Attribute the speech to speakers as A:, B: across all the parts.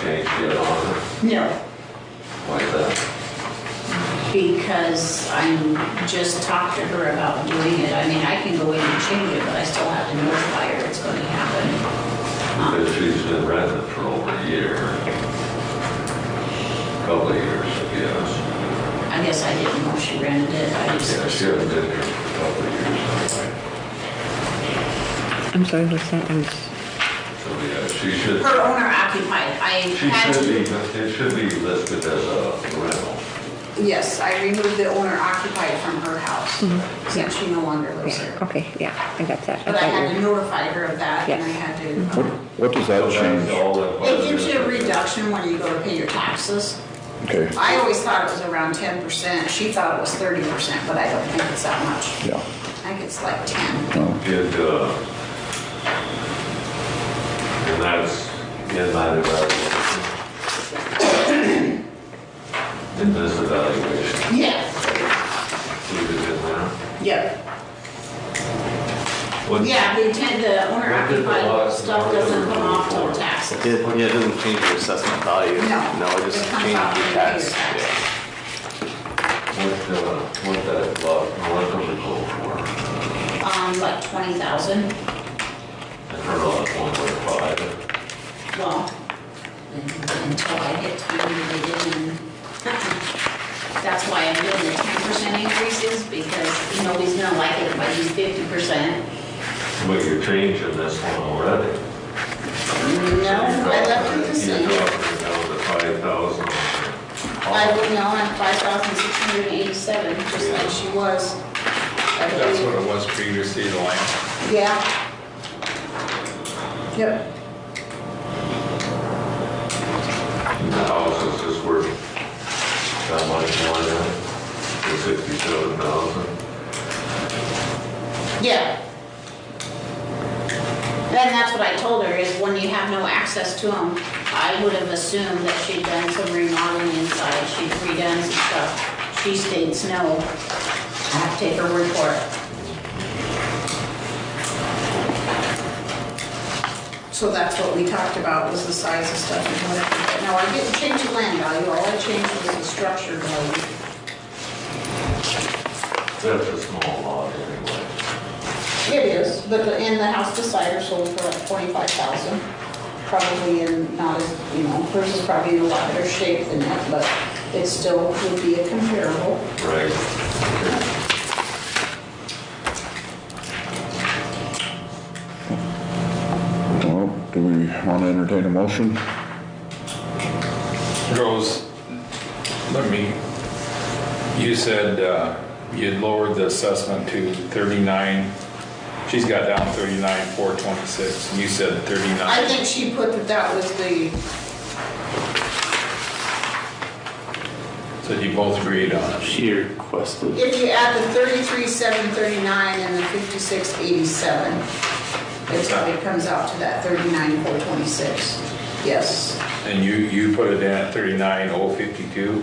A: change yet on it,
B: No,
A: like that.
B: because I'm, just talked to her about doing it. I mean, I can go in and change it, but I still have to notify her it's going to happen. Um,
A: Because she's been renting it for over a year. Couple of years, I guess.
B: I guess I didn't know she rented it, I
A: Yeah,
B: just,
A: she hasn't been here for a couple of years anyway.
C: I'm sorry, what's that? I'm s-
A: So, yeah, she should,
B: her owner occupied, I
A: she
B: had
A: should
B: to.
A: be, it should be listed as a rental.
B: Yes, I removed the owner occupied from her house, since she no longer lives there.
C: Okay, yeah, I got that. I
B: But I had
C: thought
B: to
C: you
B: notify her of that, and I
C: Yes.
B: had to.
D: What,
B: um,
D: what does that
A: So that's
D: change?
A: all that-
B: It gives you a reduction when you go to pay your taxes.
D: Okay,
B: I always thought it was around ten percent. She thought it was thirty percent, but I don't think it's that much.
D: yeah.
B: I think it's like ten.
D: no.
A: Did, uh, and that's in that evaluation. In this evaluation,
B: Yeah,
A: leave it in there.
B: yeah.
A: What-
B: Yeah, the ten, the owner
A: What did the law-
B: occupied stuff doesn't come off till
A: Before.
B: taxes.
E: It, yeah, it doesn't change your assessment value.
B: No.
E: it just
B: It comes
E: changes
B: out when
E: your
B: you pay your
E: tax.
B: tax.
A: What,
E: Yeah.
A: uh, what that lot, what does it go for?
B: Um, like twenty thousand,
A: I heard on one point five.
B: well, until I get time to get it in. That's why I'm doing the ten percent increases, because nobody's gonna like it if I do fifty percent.
A: But you're changing this one already.
B: No, I left it the same.
A: You dropped it down to five thousand.
B: I would now have five thousand six hundred and eighty-seven, just like she was. I
F: That's
B: believe.
F: what it was previously, the line.
B: Yeah. Yep.
A: The house is just worth that much more than sixty-seven thousand.
B: Yeah. And that's what I told her, is when you have no access to them, I would have assumed that she'd done some remodeling inside, she'd redone some stuff. She states no. I have to take her word for it. So that's what we talked about, was the size of stuff and whatever. But No, I didn't change the land value, all I changed was the structure value.
A: That's a small lot anyway.
B: It is, but, the- and the house beside her sold for like twenty-five thousand. Probably in not as, you know, hers is probably in a lot better shape than that, but it still would be a comparable.
A: Right.
D: Well, do we want to entertain a motion?
F: Rose, let me, you said uh, you'd lowered the assessment to 39, she's got down 39, 426, and you said 39.
B: I think she put that that was the,
F: So you both agreed on it.
E: She requested,
B: if you add the thirty-three, seven thirty-nine and the fifty-six, eighty-seven, it's, it comes out to that thirty-nine, four twenty-six. Yes.
F: And you, you put it in at 39,052?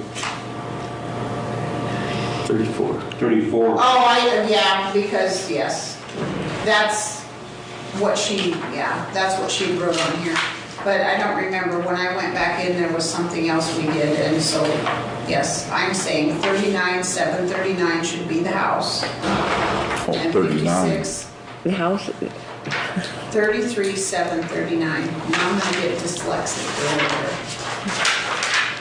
E: 34.
B: Oh, I, yeah, because, yes, that's what she, yeah, that's what she wrote on here. But I don't remember, when I went back in, there was something else we did, and so, yes, I'm saying thirty-nine, seven thirty-nine should be the house.
D: Oh,
B: and
D: 39.
B: 56,
C: The house,
B: Thirty-three, seven thirty-nine, now I'm gonna get dyslexic over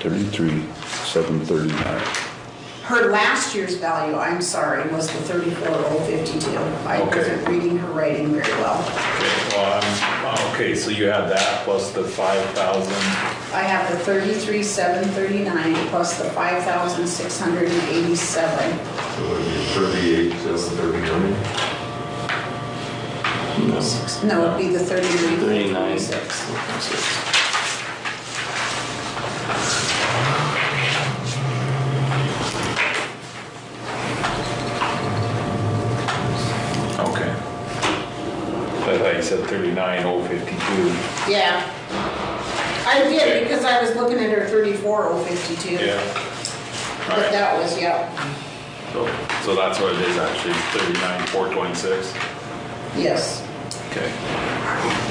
B: here.
D: 33, 739.
B: Her last year's value, I'm sorry, was the thirty-four, oh fifty-two. I wasn't reading her writing very well.
F: Okay, well, I'm- okay, so you had that plus the 5,000.
B: I have the thirty-three, seven thirty-nine plus the five thousand six hundred and eighty-seven.
A: So it'd be thirty-eight, seven thirty-nine.
B: No, it'd be the thirty-nine.
E: 39.
B: six.
F: Okay. I thought you said 39,052.
B: Yeah. I did, because I was looking at her thirty-four, oh fifty-two.
F: Yeah. All
B: But
F: right.
B: that was, yeah,
F: So so that's what it is actually, 39, 426.
B: yes.
F: Okay.